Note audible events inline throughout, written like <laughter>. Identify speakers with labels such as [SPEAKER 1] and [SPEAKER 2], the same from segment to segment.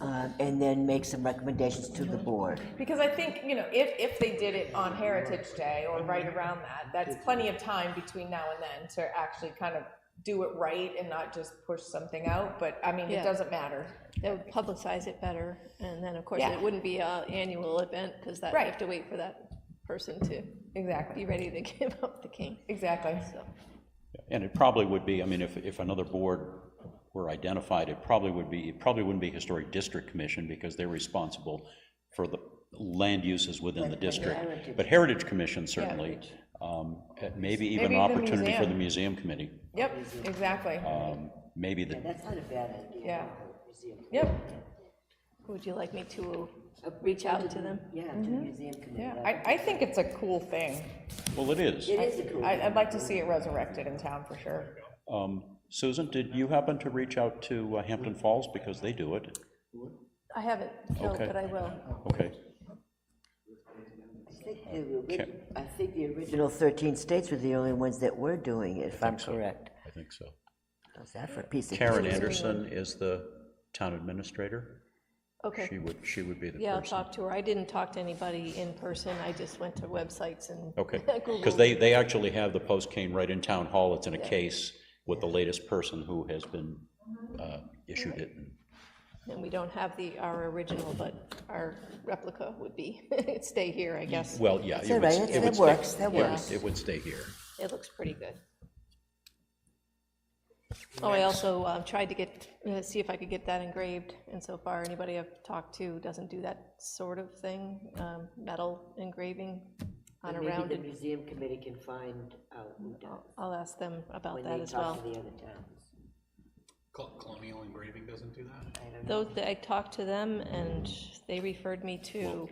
[SPEAKER 1] uh, and then make some recommendations to the board.
[SPEAKER 2] Because I think, you know, if, if they did it on Heritage Day or right around that, that's plenty of time between now and then to actually kind of do it right and not just push something out, but I mean, it
[SPEAKER 3] Yeah.
[SPEAKER 2] doesn't matter.
[SPEAKER 3] That would publicize it better, and then, of course,
[SPEAKER 2] Yeah.
[SPEAKER 3] it wouldn't be a annual event, because that, you
[SPEAKER 2] Right.
[SPEAKER 3] have to wait for that person to
[SPEAKER 2] Exactly,
[SPEAKER 3] be ready to <laughs> give up the king,
[SPEAKER 2] exactly.
[SPEAKER 3] so.
[SPEAKER 4] And it probably would be, I mean, if, if another board were identified, it probably would be, it probably wouldn't be Historic District Commission because they're responsible for the land uses within the district. But Heritage Commission certainly, um, eh, maybe even
[SPEAKER 2] Maybe
[SPEAKER 4] an
[SPEAKER 2] even
[SPEAKER 4] opportunity for the
[SPEAKER 2] museum.
[SPEAKER 4] museum committee,
[SPEAKER 2] Yep, exactly,
[SPEAKER 4] um, maybe the,
[SPEAKER 1] That's not a bad idea.
[SPEAKER 2] yeah. Yep,
[SPEAKER 3] Would you like me to reach out to them?
[SPEAKER 1] Yeah, to the
[SPEAKER 3] Mm-hmm.
[SPEAKER 1] museum committee.
[SPEAKER 2] yeah, I, I think it's a cool thing.
[SPEAKER 4] well, it is.
[SPEAKER 1] It is a cool,
[SPEAKER 2] I, I'd like to see it resurrected in town for sure.
[SPEAKER 4] Um, Susan, did you happen to reach out to uh, Hampton Falls because they do it?
[SPEAKER 3] I haven't, no,
[SPEAKER 4] Okay.
[SPEAKER 3] but I will.
[SPEAKER 4] Okay,
[SPEAKER 1] I think the orig- I think the original 13 states were the only ones that were doing it, if I'm correct.
[SPEAKER 4] I think so.
[SPEAKER 1] How's that for a piece of?
[SPEAKER 4] Karen Anderson is the town administrator. She
[SPEAKER 3] Okay,
[SPEAKER 4] would, she would be the person.
[SPEAKER 3] yeah, I'll talk to her. I didn't talk to anybody in person, I just went to websites and.
[SPEAKER 1] <laughs>
[SPEAKER 4] Okay, because
[SPEAKER 3] <laughs> Googled.
[SPEAKER 4] they, they actually have the post cane right in town hall, it's in a case with the latest person who has been
[SPEAKER 1] Mm-hmm.
[SPEAKER 4] uh, issued it.
[SPEAKER 3] And we don't have the, our original, but our replica would be, <laughs> it'd stay here, I guess.
[SPEAKER 4] Well, yeah. it
[SPEAKER 1] all
[SPEAKER 4] would
[SPEAKER 1] right,
[SPEAKER 4] st-
[SPEAKER 1] it's-
[SPEAKER 4] it would
[SPEAKER 1] that
[SPEAKER 4] stay-
[SPEAKER 1] works, that
[SPEAKER 4] it would-
[SPEAKER 1] works.
[SPEAKER 4] It would stay here.
[SPEAKER 3] It looks pretty good. Oh, I also uh, tried to get, uh, see if I could get that engraved, and so far, anybody I've talked to doesn't do that sort of thing, um, metal engraving on a
[SPEAKER 1] Maybe the
[SPEAKER 3] rounded.
[SPEAKER 1] museum committee can find out who does,
[SPEAKER 3] I'll ask them about
[SPEAKER 1] when
[SPEAKER 3] that
[SPEAKER 1] they
[SPEAKER 3] as
[SPEAKER 1] talk
[SPEAKER 3] well.
[SPEAKER 1] to the other towns.
[SPEAKER 5] Col- Colonial engraving doesn't do that?
[SPEAKER 3] Though, th- I talked to them, and they referred me to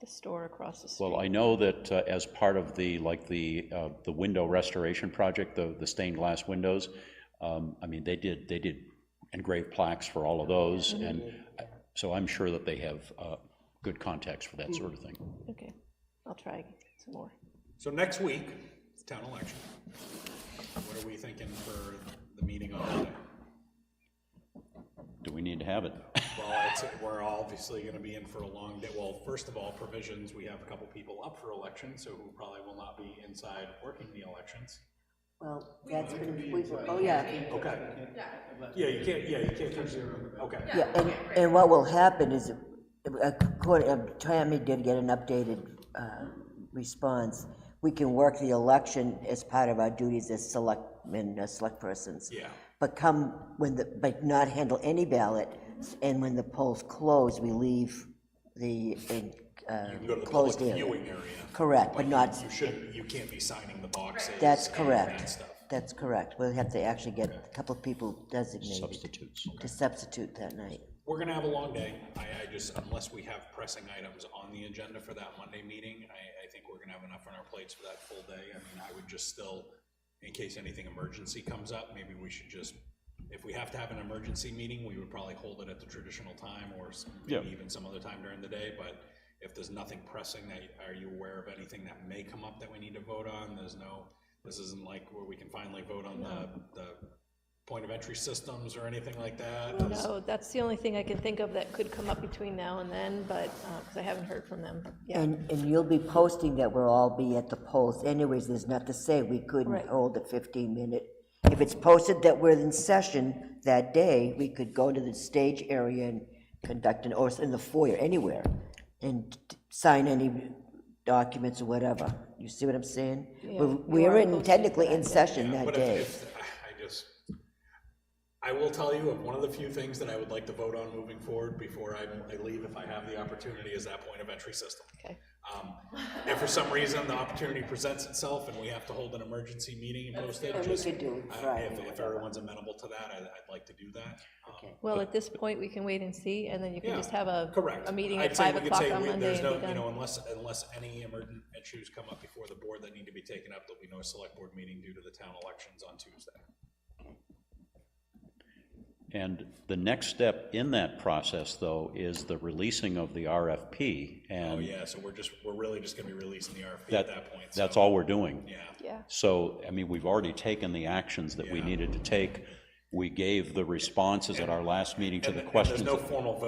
[SPEAKER 3] the store across the street.
[SPEAKER 4] Well, I know that uh, as part of the, like, the, uh, the window restoration project, the, the stained glass windows, um, I mean, they did, they did engrave plaques for all of those,
[SPEAKER 1] Mm-hmm.
[SPEAKER 4] and uh, so I'm sure that they have uh, good contacts for
[SPEAKER 1] Mm-hmm.
[SPEAKER 4] that sort of thing.
[SPEAKER 3] Okay, I'll try some more.
[SPEAKER 5] So next week, it's town election. What are we thinking for the meeting on Monday?
[SPEAKER 4] Do we need to have it? <laughs>
[SPEAKER 5] Well, it's, we're obviously gonna be in for a long day. Well, first of all, provisions, we have a couple people up for election, so who probably will not be inside working the elections.
[SPEAKER 1] Well, that's been, we, oh, yeah,
[SPEAKER 5] Okay. Yeah, you can't, yeah, you can't, okay.
[SPEAKER 1] yeah, and, and what will happen is, according, uh, Tammy did get an updated, uh, response. We can work the election as part of our duties as selectmen, uh, select persons.
[SPEAKER 5] Yeah,
[SPEAKER 1] But come, when the, but not handle any ballot, and when the polls close, we leave the, uh,
[SPEAKER 5] you can go to the public
[SPEAKER 1] closed area.
[SPEAKER 5] viewing area.
[SPEAKER 1] Correct, but not,
[SPEAKER 5] You shouldn't, you can't be signing the boxes.
[SPEAKER 1] that's
[SPEAKER 5] and that
[SPEAKER 1] correct.
[SPEAKER 5] stuff.
[SPEAKER 1] That's correct. We'll have to actually get a couple of people designated
[SPEAKER 4] Substitutes.
[SPEAKER 1] to substitute that night.
[SPEAKER 5] We're gonna have a long day. I, I just, unless we have pressing items on the agenda for that Monday meeting, I, I think we're gonna have enough on our plates for that full day. I mean, I would just still, in case anything emergency comes up, maybe we should just, if we have to have an emergency meeting, we would probably hold it at the traditional time or s- maybe
[SPEAKER 4] Yeah.
[SPEAKER 5] even some other time during the day, but if there's nothing pressing that, are you aware of anything that may come up that we need to vote on? There's no, this isn't like where we can finally vote on the, the point of entry systems or anything like that. There's-
[SPEAKER 3] No, that's the only thing I can think of that could come up between now and then, but, because I haven't heard from them yet.
[SPEAKER 1] And, and you'll be posting that we'll all be at the polls anyways, there's not to say we couldn't
[SPEAKER 3] Right.
[SPEAKER 1] hold a 15-minute. If it's posted that we're in session that day, we could go to the stage area and conduct an, or in the foyer, anywhere, and sign any documents or whatever. You see what I'm saying? We're- We're in, technically in session that
[SPEAKER 5] But if-
[SPEAKER 1] day.
[SPEAKER 5] if- I just, I will tell you, of one of the few things that I would like to vote on moving forward before I I leave, if I have the opportunity, is that point of entry system.
[SPEAKER 3] Okay.
[SPEAKER 5] Um, If for some reason the opportunity presents itself and we have to hold an emergency meeting and post it, just,
[SPEAKER 1] could do it
[SPEAKER 5] I-
[SPEAKER 1] Friday
[SPEAKER 5] if
[SPEAKER 1] or
[SPEAKER 5] if everyone's amenable to that, I- I'd like to do that. Um,
[SPEAKER 3] Well, at this point, we can wait and see, and then you can
[SPEAKER 5] Yeah,
[SPEAKER 3] just have a.
[SPEAKER 5] Correct.
[SPEAKER 3] A meeting
[SPEAKER 5] I'd
[SPEAKER 3] at
[SPEAKER 5] say
[SPEAKER 3] five
[SPEAKER 5] we could
[SPEAKER 3] o'clock
[SPEAKER 5] say
[SPEAKER 3] on
[SPEAKER 5] we-
[SPEAKER 3] Monday
[SPEAKER 5] there's
[SPEAKER 3] and
[SPEAKER 5] no,
[SPEAKER 3] be
[SPEAKER 5] You know,
[SPEAKER 3] done.
[SPEAKER 5] unless, unless any emergent issues come up before the board that need to be taken up, there'll be no select board meeting due to the town elections on Tuesday.
[SPEAKER 4] And the next step in that process, though, is the releasing of the RFP,
[SPEAKER 5] Oh,
[SPEAKER 4] and
[SPEAKER 5] yeah, so we're just, we're really just gonna be releasing the RFP at
[SPEAKER 4] that,
[SPEAKER 5] that point.
[SPEAKER 4] that's
[SPEAKER 5] so,
[SPEAKER 4] all we're doing.
[SPEAKER 5] Yeah,
[SPEAKER 3] Yeah,
[SPEAKER 4] So, I mean, we've already taken the actions that we
[SPEAKER 5] Yeah.
[SPEAKER 4] needed to take. we gave the responses at our last meeting to
[SPEAKER 5] And
[SPEAKER 4] the
[SPEAKER 5] and there's
[SPEAKER 4] questions.
[SPEAKER 5] no
[SPEAKER 4] that-
[SPEAKER 5] formal vote